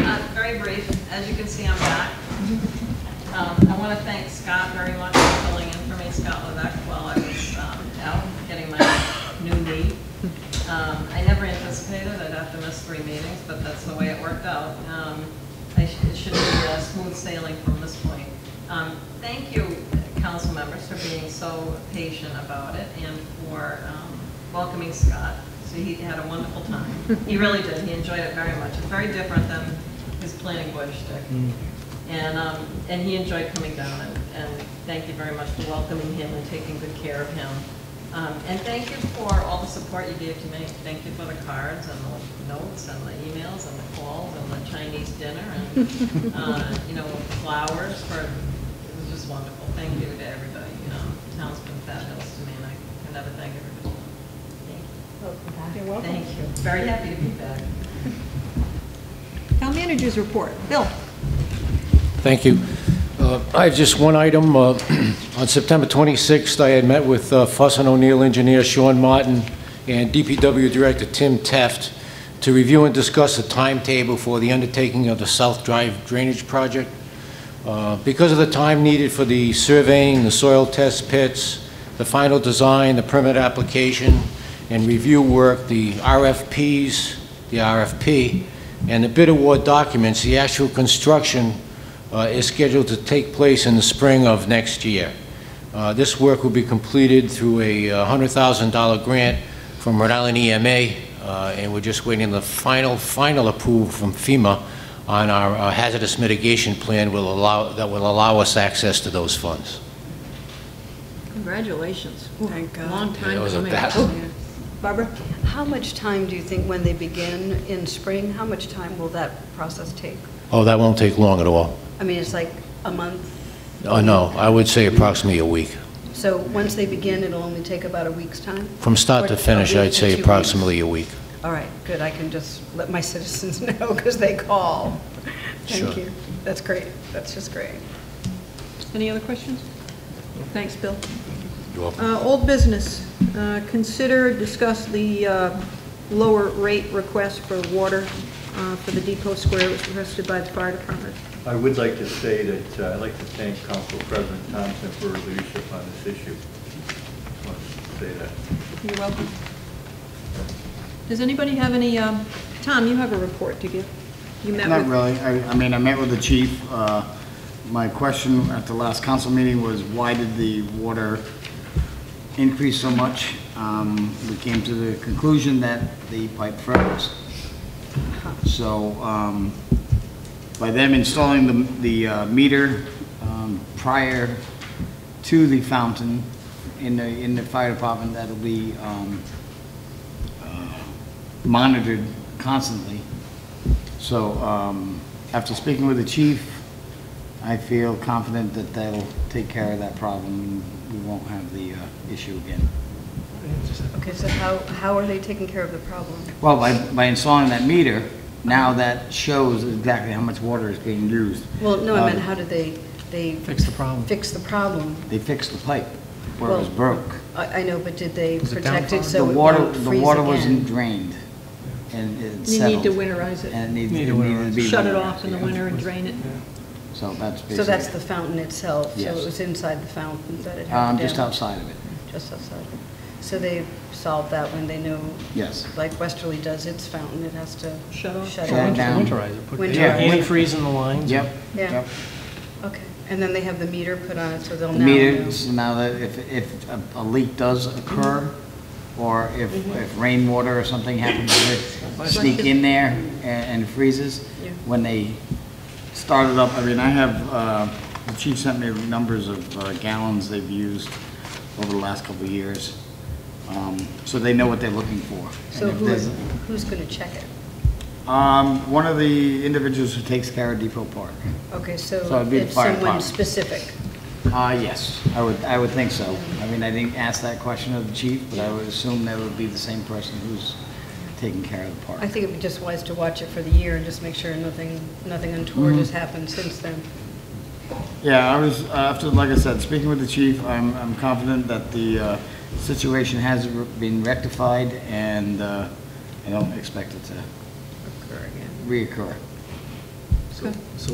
Uh, very brief, as you can see, I'm back. Um, I want to thank Scott very much for filling in for me, Scott Levesque, while I was um, out getting my new knee. Um, I never anticipated I'd have to miss three meetings, but that's the way it worked out. Um, I sh- It should be uh, smooth sailing from this point. Um, Thank you, council members, for being so patient about it and for um, welcoming Scott. So he had a wonderful time. He really did, he enjoyed it very much. It's very different than his planning board shtick. And, um, and he enjoyed coming down, and, and thank you very much for welcoming him and taking good care of him. Um, and thank you for all the support you gave to me. Thank you for the cards and the notes and the emails and the calls and the Chinese dinner and, uh, you know, flowers for, it was just wonderful. Thank you to everybody, you know, town's been fabulous to me, and I can never thank everybody. Thank You're you. Thank you. Very happy to be back. Town managers report. Bill? Thank you. Uh, I have just one item. Uh, On September 26th, I had met with uh, Fuss and O'Neill engineer Sean Martin and DPW Director Tim Teft to review and discuss the timetable for the undertaking of the South Drive Drainage Project. Uh, Because of the time needed for the surveying, the soil test pits, the final design, the permit application, and review work, the RFPs, the RFP, and the bid award documents, the actual construction uh, is scheduled to take place in the spring of next year. Uh, This work will be completed through a uh, $100,000 grant from Rhode Island EMA, uh, and we're just waiting the final, final approval from FEMA on our uh, hazardous mitigation plan will allow, that will allow us access to those funds. Congratulations. Thank God. Long time Yeah, it was a coming. Oh. battle. Barbara? How much time do you think, when they begin in spring, how much time will that process take? Oh, that won't take long at all. I mean, it's like a month, Oh, no, I would say approximately a week. so once they begin, it'll only take about a week's time? From start to Or a finish, week I'd to say two weeks. approximately a week. All right, good, I can just let my citizens know, because they call. Sure. Thank you, that's great, that's just great. Any other questions? Thanks, Bill. You're welcome. Uh, Old business, Uh, consider, discuss the uh, lower rate request for water uh, for the depot square, it was requested by the fire department. I would like to say that uh, I'd like to thank Council President Thompson for her leadership on this issue. Just wanted to say that. You're welcome. Does anybody have any, um, Tom, you have a report to give? You met Not with- really. I, I mean, I met with the chief. Uh, My question at the last council meeting was, why did the water increase so much? Um, We came to the conclusion that the pipe froze. So um, by them installing the, the uh, meter um, prior to the fountain in the, in the fire department, that'll be um, uh, monitored constantly. So um, after speaking with the chief, I feel confident that that'll take care of that problem and we won't have the uh, issue again. Okay, so how, how are they taking care of the problem? Well, by, by installing that meter, now that shows exactly how much water is being used. Well, no, I meant, Um, how did they, they? Fix the problem. Fix the problem? They fixed the pipe where it was Well, broke. I, I know, but did they Was it protect it downpouring? so The it water, won't freeze the again? water wasn't drained and You it need settled. to winterize it. And it needed Need it to needed to be. Shut it winterized, off in the yeah. winter and drain it. So that's basically. So that's the fountain itself? So Yes. it was inside the fountain that it Um, happened? just down- outside of it. Just outside. So they solved that when they know? Yes. Like Westerly does its fountain, it has to? Shut off. Shut Shut it down. down. Winterize it, put Winterize. antifreeze in the lines. Yep. Yeah. yep. Okay. And then they have the meter put on it, so they'll The now know? meters, now that if, if a- a leak does occur, or if, Mm-hmm. if rainwater or something happens to it sneak in there a- and freezes, Yeah. when they start it up, I mean, I have, uh, the chief sent me numbers of uh, gallons they've used over the last couple of years, Um, so they know what they're looking for. And So if who, there's- who's going to check it? Um, one of the individuals who takes care of Depot Park. Okay, So so it'd be the it's fire someone department. specific? Uh, yes, I would, I would think so. I mean, I didn't ask that question of the chief, but I would assume that would be the same person who's taking care of the park. I think it'd be just wise to watch it for the year and just make sure nothing, nothing Mm-hmm. untoward has happened since then. Yeah, I was, uh, after, like I said, speaking with the chief, I'm, I'm confident that the, uh, situation has been rectified and, uh, I don't expect it to Occur again. reoccur. That's good.